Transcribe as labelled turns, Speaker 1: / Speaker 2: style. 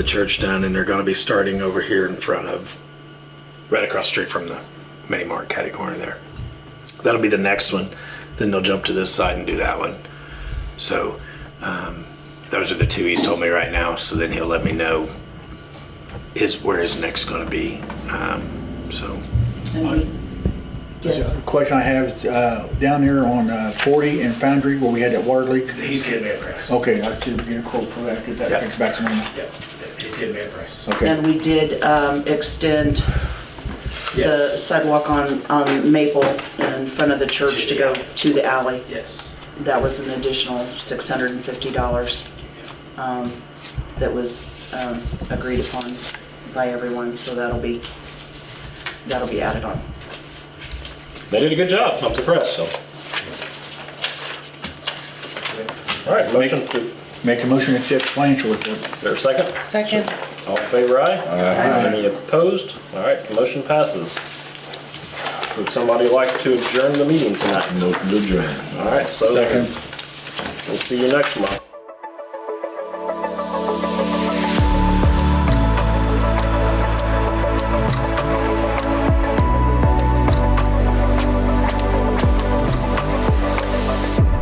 Speaker 1: the church done, and they're going to be starting over here in front of, right across the street from the mini mart catty corner there. That'll be the next one. Then they'll jump to this side and do that one. So um, those are the two he's told me right now. So then he'll let me know his where his next going to be. Um, so
Speaker 2: And we- Yes,
Speaker 3: The Question I have is, uh, down there on uh, 40 and Foundry where we had that water leak.
Speaker 1: he's getting me a price.
Speaker 3: Okay, I should get a quote for that, get that fixed back to normal.
Speaker 1: Yeah, he's getting me a price.
Speaker 3: Okay,
Speaker 2: and we did um, extend the
Speaker 1: Yes.
Speaker 2: sidewalk on, on Maple in front of the church to go to the alley.
Speaker 1: Yes.
Speaker 2: That was an additional $650 um, that was um, agreed upon by everyone, so that'll be, that'll be added on.
Speaker 4: They did a good job. I'm impressed, so. All right, motion, to-
Speaker 3: make a motion to accept financial report.
Speaker 4: there a second?
Speaker 5: Second.
Speaker 4: All in favor, aye? Any opposed? All right, the motion passes. Would somebody like to adjourn the meeting tonight?
Speaker 6: No, good job.
Speaker 4: All right, so
Speaker 3: Second.
Speaker 4: we'll see you next month.